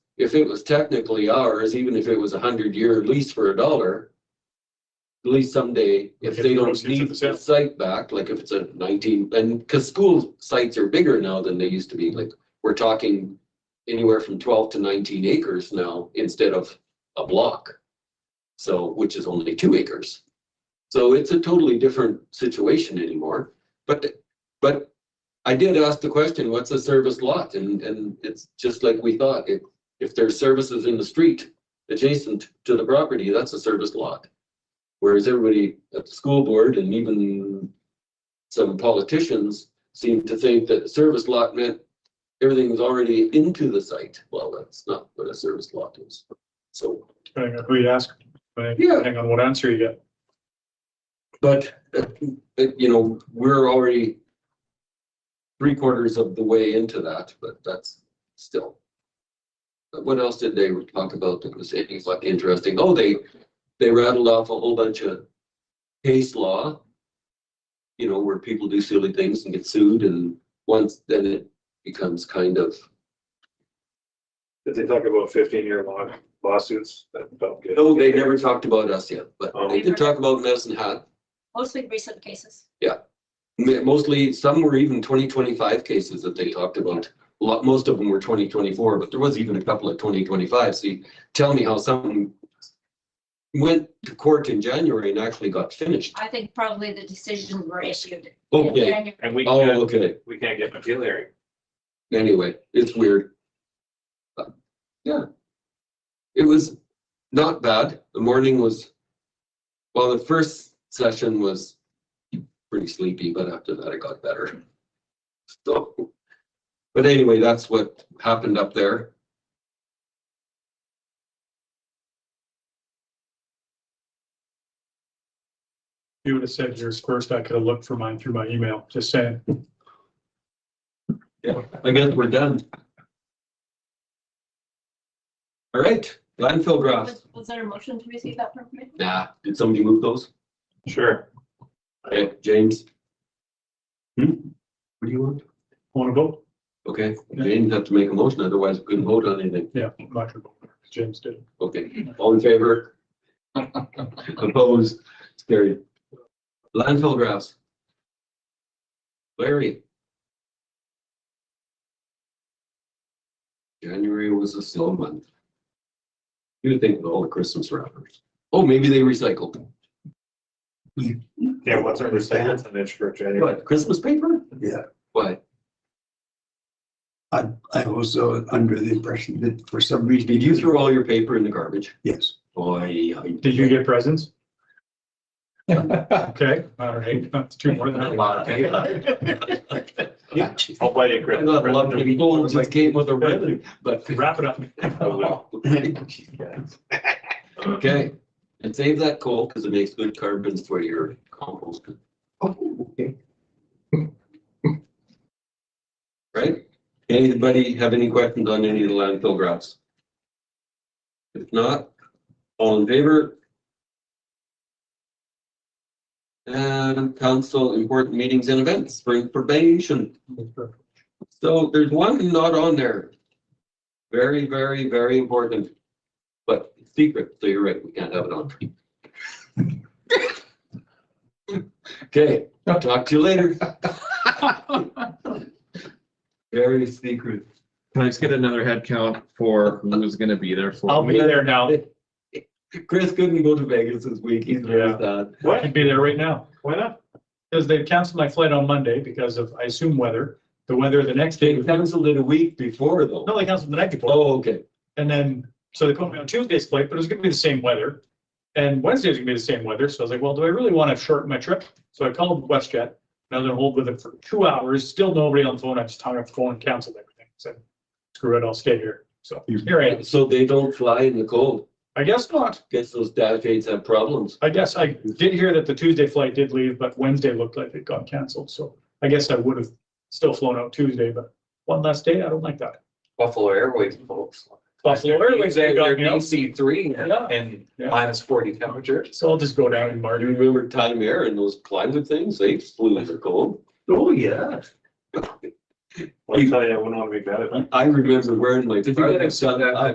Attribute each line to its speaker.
Speaker 1: if it was technically ours, even if it was a hundred year lease for a dollar, at least someday, if
Speaker 2: Get
Speaker 1: they
Speaker 2: the
Speaker 1: don't
Speaker 2: proceeds of
Speaker 1: need
Speaker 2: the
Speaker 1: the
Speaker 2: sale.
Speaker 1: site back, like if it's a nineteen, and, cause school sites are bigger now than they used to be, like, we're talking anywhere from twelve to nineteen acres now instead of a block. So, which is only two acres. So it's a totally different situation anymore, but, but I did ask the question, what's a service lot? And, and it's just like we thought, if, if there's services in the street adjacent to the property, that's a service lot. Whereas everybody at the school board and even some politicians seem to think that service lot meant everything's already into the site. Well, that's not what a service lot is. So,
Speaker 2: depending on who you ask, but
Speaker 1: Yeah.
Speaker 2: depending on what answer you get.
Speaker 1: but, uh, uh, you know, we're already three quarters of the way into that, but that's still. But What else did they talk about that was anything like interesting? Oh, they, they rattled off a whole bunch of case law. You know, where people do silly things and get sued and once, then it becomes kind of,
Speaker 3: Did they talk about fifteen year long lawsuits that felt good?
Speaker 1: no, oh, they never talked about us yet, but they did talk about Medicine Hat.
Speaker 4: mostly recent cases.
Speaker 1: Ma- Mostly, some were even twenty twenty-five cases that they talked about. A lot, most of them were twenty twenty-four, but there was even a couple of twenty twenty-five. So you tell me how some went to court in January and actually got finished.
Speaker 4: I think probably the decisions were issued. in
Speaker 1: Okay,
Speaker 4: January.
Speaker 3: And we
Speaker 1: oh,
Speaker 3: can't,
Speaker 1: okay.
Speaker 3: we can't get an appeal hearing.
Speaker 1: Anyway, it's weird. But, Yeah. It was not bad. The morning was, well, the first session was pretty sleepy, but after that it got better. So, but anyway, that's what happened up there.
Speaker 2: If You would have said yours first, I could have looked for mine through my email, just saying.
Speaker 1: I guess we're done. All right, landfill grass.
Speaker 4: Was was there a motion to receive that from committee?
Speaker 1: Nah, did somebody move those?
Speaker 3: Sure.
Speaker 1: Okay, James? Hmm? What do you want?
Speaker 2: Want to vote?
Speaker 1: Okay,
Speaker 2: Yeah.
Speaker 1: James have to make a motion, otherwise we couldn't vote on anything.
Speaker 2: Yeah, I'm not gonna vote, 'cause James did.
Speaker 1: Okay, all in favor? Opposed, It's carried. Landfill grouse. Larry. January was a slow month. You would think with all the Christmas wrappers. Oh, maybe they recycled.
Speaker 3: Yeah, what's our percentage on inch for January?
Speaker 1: What, Christmas paper?
Speaker 5: Yeah.
Speaker 1: What?
Speaker 5: I was uh, under the impression that for some reason.
Speaker 1: Did you throw all your paper in the garbage?
Speaker 5: Yes.
Speaker 1: Boy. I-
Speaker 2: Did you get presents?
Speaker 5: Yeah,
Speaker 2: Okay, all right, that's two more than I
Speaker 1: A lot of paper.
Speaker 3: I'll buy you Oh, a
Speaker 1: I got a lot of people
Speaker 3: Christmas.
Speaker 1: just came with a ribbon, but.
Speaker 2: Wrap it up.
Speaker 3: uh,
Speaker 1: Okay, and save that coal because it makes good carbons for your compost,
Speaker 5: okay.
Speaker 1: right? Anybody have any questions on any of the landfill graphs? If not, all in favor? And council important meetings and events, spring probation. So there's one not on there. Very, very, very important. But it's secret, so you're right, we can't have it on. Okay, talk to you later. Very secret.
Speaker 6: Can I just get another head count for who's gonna be there for?
Speaker 2: I'll be there now.
Speaker 1: Chris couldn't go to Vegas this week, he's very
Speaker 2: Yeah.
Speaker 1: sad.
Speaker 2: I
Speaker 3: What?
Speaker 2: could be there right now.
Speaker 3: Why not?
Speaker 2: Because they canceled my flight on Monday because of, I assume, weather. The weather the next day.
Speaker 1: They
Speaker 2: was-
Speaker 1: canceled it a week before though.
Speaker 2: No, they canceled the night before.
Speaker 1: Oh, okay.
Speaker 2: And then, so they put me on Tuesday's flight, but it was gonna be the same weather. And Wednesday's gonna be the same weather, so I was like, well, do I really wanna shorten my trip? So I called WestJet, and I was gonna hold with them for two hours, still nobody on the phone, I just hung up the phone and canceled everything, said, screw it, I'll stay here, so here I am,
Speaker 1: So they don't fly in the cold.
Speaker 2: I guess not,
Speaker 1: Guess those dash eights have problems.
Speaker 2: I guess I did hear that the Tuesday flight did leave, but Wednesday looked like it got canceled, so I guess I would have still flown out Tuesday, but one last day, I don't like that.
Speaker 7: Buffalo Airways folks.
Speaker 2: Buffalo Airways, they got me out,
Speaker 7: DC three
Speaker 2: Yeah.
Speaker 7: and
Speaker 2: Yeah.
Speaker 7: minus forty temperature.
Speaker 2: so I'll just go down and
Speaker 1: Do
Speaker 2: mark.
Speaker 1: you remember Time Air and those climate things? They flew in the cold. Oh, yeah.
Speaker 3: I'll tell you, I wouldn't want to make that.
Speaker 1: I remember wearing my.
Speaker 7: Did you get a-
Speaker 1: Sun-